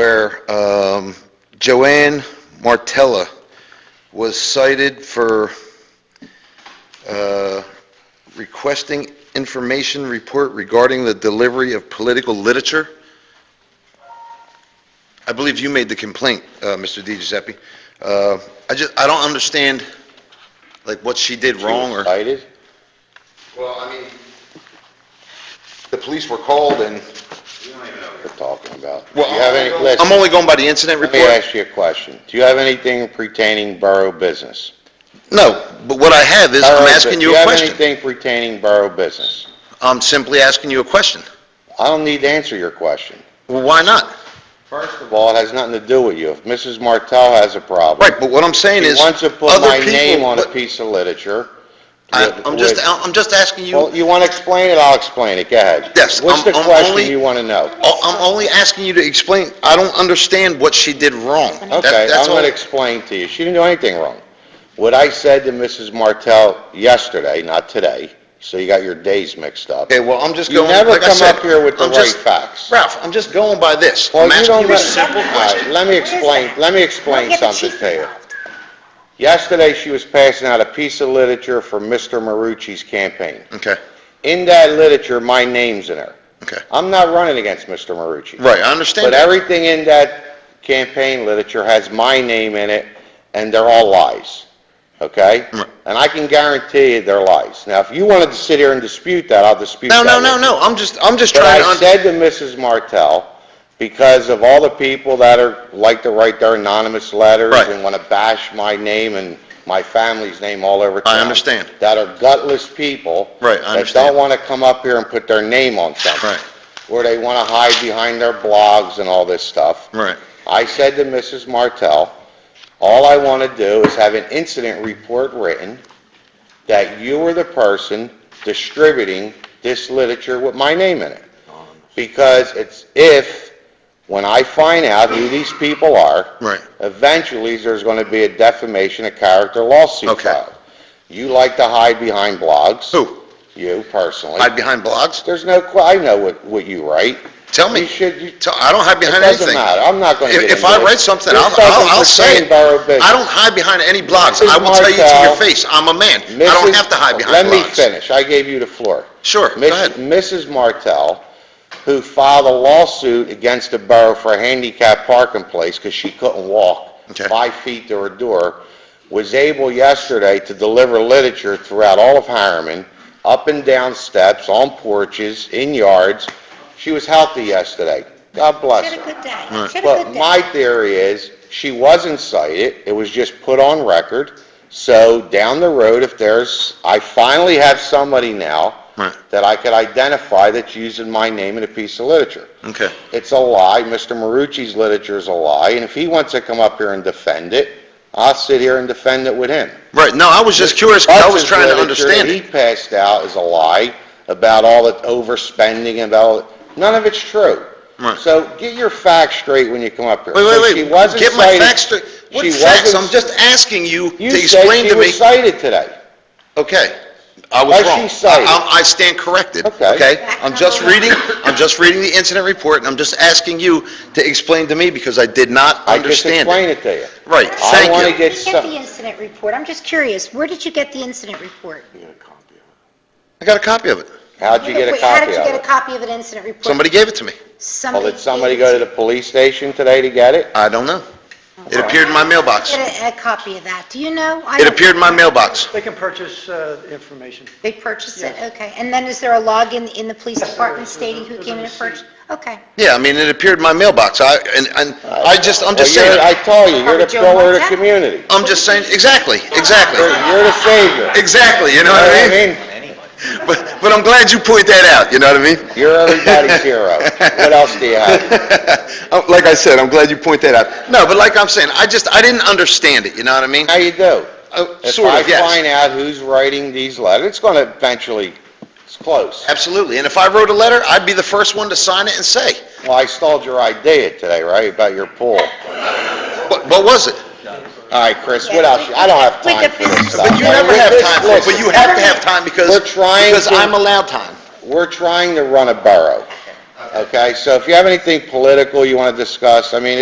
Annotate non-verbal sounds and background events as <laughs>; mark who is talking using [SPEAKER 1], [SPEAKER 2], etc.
[SPEAKER 1] where um, Joanne Martella was cited for uh, requesting information report regarding the delivery of political literature. I believe you made the complaint, uh, Mr. Di Giuseppe. Uh, I just, I don't understand, like, what she did wrong or...
[SPEAKER 2] Cited?
[SPEAKER 1] Well, I mean, the police were called and...
[SPEAKER 2] We're talking about. Do you
[SPEAKER 1] Well,
[SPEAKER 2] have any,
[SPEAKER 1] I'm
[SPEAKER 2] listen,
[SPEAKER 1] only going by the incident
[SPEAKER 2] let me
[SPEAKER 1] report.
[SPEAKER 2] ask you a question. Do you have anything pertaining borough business?
[SPEAKER 1] No, but what I have is,
[SPEAKER 2] Borough
[SPEAKER 1] I'm
[SPEAKER 2] bu-
[SPEAKER 1] asking
[SPEAKER 2] Do
[SPEAKER 1] you
[SPEAKER 2] you
[SPEAKER 1] a
[SPEAKER 2] have
[SPEAKER 1] question.
[SPEAKER 2] anything pertaining borough business?
[SPEAKER 1] I'm simply asking you a question.
[SPEAKER 2] I don't need to answer your question.
[SPEAKER 1] Well, why not?
[SPEAKER 2] First of all, it has nothing to do with you. If Mrs. Martell has a problem,
[SPEAKER 1] Right, but what I'm saying
[SPEAKER 2] she
[SPEAKER 1] is,
[SPEAKER 2] wants to put
[SPEAKER 1] other
[SPEAKER 2] my
[SPEAKER 1] people-
[SPEAKER 2] name on a
[SPEAKER 1] but
[SPEAKER 2] piece of literature.
[SPEAKER 1] I-
[SPEAKER 2] with-
[SPEAKER 1] I'm just,
[SPEAKER 2] with-
[SPEAKER 1] I'm just asking you,
[SPEAKER 2] Well, you want to explain it, I'll explain it. Go ahead.
[SPEAKER 1] Yes,
[SPEAKER 2] What's
[SPEAKER 1] I'm-
[SPEAKER 2] the
[SPEAKER 1] I'm
[SPEAKER 2] question
[SPEAKER 1] only-
[SPEAKER 2] you want to know?
[SPEAKER 1] Oh, I'm only asking you to explain, I don't understand what she did wrong. That-
[SPEAKER 2] Okay, I'm
[SPEAKER 1] that's all.
[SPEAKER 2] going to explain to you. She didn't do anything wrong. What I said to Mrs. Martell yesterday, not today, so you got your days mixed up.
[SPEAKER 1] Okay, well, I'm just
[SPEAKER 2] You
[SPEAKER 1] going,
[SPEAKER 2] never
[SPEAKER 1] like I
[SPEAKER 2] come
[SPEAKER 1] said,
[SPEAKER 2] up here with the
[SPEAKER 1] I'm
[SPEAKER 2] right
[SPEAKER 1] just-
[SPEAKER 2] facts.
[SPEAKER 1] Ralph, I'm just going by this.
[SPEAKER 2] Well,
[SPEAKER 1] I'm
[SPEAKER 2] you
[SPEAKER 1] asking
[SPEAKER 2] don't
[SPEAKER 1] you a
[SPEAKER 2] know-
[SPEAKER 1] simple
[SPEAKER 2] All right,
[SPEAKER 1] question.
[SPEAKER 2] Let me
[SPEAKER 3] Where is
[SPEAKER 2] explain,
[SPEAKER 3] that?
[SPEAKER 2] let me
[SPEAKER 3] Well,
[SPEAKER 2] explain
[SPEAKER 3] yeah, but
[SPEAKER 2] something
[SPEAKER 3] she's
[SPEAKER 2] to you.
[SPEAKER 3] involved.
[SPEAKER 2] Yesterday, she was passing out a piece of literature for Mr. Marucci's campaign.
[SPEAKER 1] Okay,
[SPEAKER 2] In that literature, my name's in there.
[SPEAKER 1] okay.
[SPEAKER 2] I'm not running against Mr. Marucci.
[SPEAKER 1] Right, I understand
[SPEAKER 2] But
[SPEAKER 1] that.
[SPEAKER 2] everything in that campaign literature has my name in it, and they're all lies, okay?
[SPEAKER 1] Right.
[SPEAKER 2] And I can guarantee you they're lies. Now, if you wanted to sit here and dispute that, I'll dispute
[SPEAKER 1] No,
[SPEAKER 2] that.
[SPEAKER 1] no, no,
[SPEAKER 2] with
[SPEAKER 1] no, I'm just, I'm just
[SPEAKER 2] you. But
[SPEAKER 1] trying to,
[SPEAKER 2] I
[SPEAKER 1] un-
[SPEAKER 2] said to Mrs. Martell, because of all the people that are, like to write their anonymous letters
[SPEAKER 1] Right.
[SPEAKER 2] and want to bash my name and my family's name all over town.
[SPEAKER 1] I understand.
[SPEAKER 2] That are gutless people.
[SPEAKER 1] Right, I
[SPEAKER 2] That
[SPEAKER 1] understand.
[SPEAKER 2] don't want to come up here and put their name on something
[SPEAKER 1] right,
[SPEAKER 2] where they want to hide behind their blogs and all this stuff.
[SPEAKER 1] right.
[SPEAKER 2] I said to Mrs. Martell, all I want to do is have an incident report written that you were the person distributing this literature with my name in it. Because it's if, when I find out who these people are,
[SPEAKER 1] Right.
[SPEAKER 2] eventually there's going to be a defamation of character lawsuit
[SPEAKER 1] Okay.
[SPEAKER 2] filed. You like to hide behind blogs.
[SPEAKER 1] Who?
[SPEAKER 2] You personally.
[SPEAKER 1] Hide behind blogs?
[SPEAKER 2] There's no, que- I know what, what you write.
[SPEAKER 1] Tell me.
[SPEAKER 2] You should, you,
[SPEAKER 1] Tell- I don't hide behind
[SPEAKER 2] doesn't
[SPEAKER 1] anything.
[SPEAKER 2] matter. I'm not gonna
[SPEAKER 1] If-
[SPEAKER 2] get
[SPEAKER 1] If
[SPEAKER 2] into
[SPEAKER 1] I
[SPEAKER 2] it.
[SPEAKER 1] write something,
[SPEAKER 2] This
[SPEAKER 1] I'll, I'll I'll
[SPEAKER 2] doesn't
[SPEAKER 1] say
[SPEAKER 2] pertain
[SPEAKER 1] it.
[SPEAKER 2] to our business.
[SPEAKER 1] I don't hide behind any blogs.
[SPEAKER 2] Mrs.
[SPEAKER 1] I will tell you to your
[SPEAKER 2] Martell-
[SPEAKER 1] face, I'm a man. I don't
[SPEAKER 2] Mrs.
[SPEAKER 1] have to hide behind
[SPEAKER 2] Let me
[SPEAKER 1] blogs.
[SPEAKER 2] finish. I gave you the floor.
[SPEAKER 1] Sure, go
[SPEAKER 2] Miss-
[SPEAKER 1] ahead.
[SPEAKER 2] Mrs. Martell, who filed a lawsuit against the borough for a handicap parking place because she couldn't walk
[SPEAKER 1] Okay.
[SPEAKER 2] five feet to her door, was able yesterday to deliver literature throughout all of Harriman, up and down steps, on porches, in yards. She was healthy yesterday. God bless her.
[SPEAKER 3] She had a good day.
[SPEAKER 1] Right.
[SPEAKER 3] She had a
[SPEAKER 2] But
[SPEAKER 3] good day.
[SPEAKER 2] my theory is, she wasn't cited, it was just put on record. So down the road, if there's, I finally have somebody now
[SPEAKER 1] Right,
[SPEAKER 2] that I could identify that's using my name in a piece of literature.
[SPEAKER 1] okay.
[SPEAKER 2] It's a lie, Mr. Marucci's literature is a lie, and if he wants to come up here and defend it, I'll sit here and defend it with him.
[SPEAKER 1] Right, no, I was just curious, 'cause I was trying to understand
[SPEAKER 2] He
[SPEAKER 1] it.
[SPEAKER 2] passed out is a lie about all the overspending and about, none of it's true.
[SPEAKER 1] Right.
[SPEAKER 2] So get your facts straight when you come up here.
[SPEAKER 1] Wait,
[SPEAKER 2] So
[SPEAKER 1] wait,
[SPEAKER 2] she
[SPEAKER 1] wait,
[SPEAKER 2] wasn't
[SPEAKER 1] get my
[SPEAKER 2] cited-
[SPEAKER 1] facts straight. What
[SPEAKER 2] she
[SPEAKER 1] facts?
[SPEAKER 2] wasn't-
[SPEAKER 1] I'm just asking you to
[SPEAKER 2] You said
[SPEAKER 1] explain
[SPEAKER 2] she
[SPEAKER 1] to me.
[SPEAKER 2] was cited today.
[SPEAKER 1] Okay, I
[SPEAKER 2] Why
[SPEAKER 1] was
[SPEAKER 2] she
[SPEAKER 1] wrong.
[SPEAKER 2] cited?
[SPEAKER 1] I- I I stand corrected,
[SPEAKER 2] Okay.
[SPEAKER 1] okay? I'm just reading, I'm just reading the incident report, and I'm just asking you to explain to me, because I did not
[SPEAKER 2] I just
[SPEAKER 1] understand it.
[SPEAKER 2] explained it to you.
[SPEAKER 1] Right,
[SPEAKER 2] I
[SPEAKER 1] thank
[SPEAKER 2] wanna
[SPEAKER 1] you.
[SPEAKER 3] Where
[SPEAKER 2] get
[SPEAKER 3] did you
[SPEAKER 2] some-
[SPEAKER 3] the incident report? I'm just curious, where did you get the incident report?
[SPEAKER 1] I got a copy of it.
[SPEAKER 2] How'd you get a
[SPEAKER 3] Wait, How
[SPEAKER 2] copy
[SPEAKER 3] did you
[SPEAKER 2] of
[SPEAKER 3] get a
[SPEAKER 2] it?
[SPEAKER 3] copy of an incident report?
[SPEAKER 1] Somebody gave it to me.
[SPEAKER 2] Well, did somebody go to the police station today to get it?
[SPEAKER 1] I don't know. It appeared in my mailbox.
[SPEAKER 3] Get a- a copy of that, do you know? I
[SPEAKER 1] It
[SPEAKER 3] don't-
[SPEAKER 1] appeared in my mailbox.
[SPEAKER 4] They can purchase uh, information.
[SPEAKER 3] They purchased it,
[SPEAKER 4] Yeah.
[SPEAKER 3] okay. And then is there a login in the police
[SPEAKER 4] Yes, there
[SPEAKER 3] department
[SPEAKER 4] is.
[SPEAKER 3] stating who
[SPEAKER 4] There's a-
[SPEAKER 3] came in and
[SPEAKER 4] there's a
[SPEAKER 3] purchased? Okay.
[SPEAKER 1] Yeah, I mean, it appeared in my mailbox. I, and, and I just, I'm just
[SPEAKER 2] Well, you're- I
[SPEAKER 1] saying,
[SPEAKER 2] tell you, you're the
[SPEAKER 3] Howard Joe
[SPEAKER 2] pillar of the
[SPEAKER 3] Martell?
[SPEAKER 2] community.
[SPEAKER 1] I'm just saying, exactly,
[SPEAKER 2] You're
[SPEAKER 1] exactly,
[SPEAKER 2] you're the
[SPEAKER 1] <laughs>
[SPEAKER 2] savior.
[SPEAKER 1] exactly, you know
[SPEAKER 2] You know
[SPEAKER 1] what I
[SPEAKER 2] what
[SPEAKER 1] mean? But, but I'm glad you point that out, you know what I mean?
[SPEAKER 2] You're everybody's hero. What else do you have?
[SPEAKER 1] Uh, Like I said, <laughs> I'm glad you point that out. No, but like I'm saying, I just, I didn't understand it, you know what I mean?
[SPEAKER 2] How you do?
[SPEAKER 1] Uh, Sort of,
[SPEAKER 2] If I find
[SPEAKER 1] yes.
[SPEAKER 2] out who's writing these letters, it's going to eventually, it's close.
[SPEAKER 1] Absolutely. And if I wrote a letter, I'd be the first one to sign it and say,
[SPEAKER 2] Well, I stalled your idea today, right, about your pool.
[SPEAKER 1] what, what was it?
[SPEAKER 2] All right, Chris, what else? I don't have
[SPEAKER 3] With the
[SPEAKER 2] time for this
[SPEAKER 3] business-
[SPEAKER 2] stuff.
[SPEAKER 1] But you never have time for it, but
[SPEAKER 2] Listen,
[SPEAKER 1] you have to have time because,
[SPEAKER 2] We're trying
[SPEAKER 1] because
[SPEAKER 2] to-
[SPEAKER 1] I'm allowed time.
[SPEAKER 2] We're trying to run a borough. Okay, so if you have anything political you want to discuss, I mean,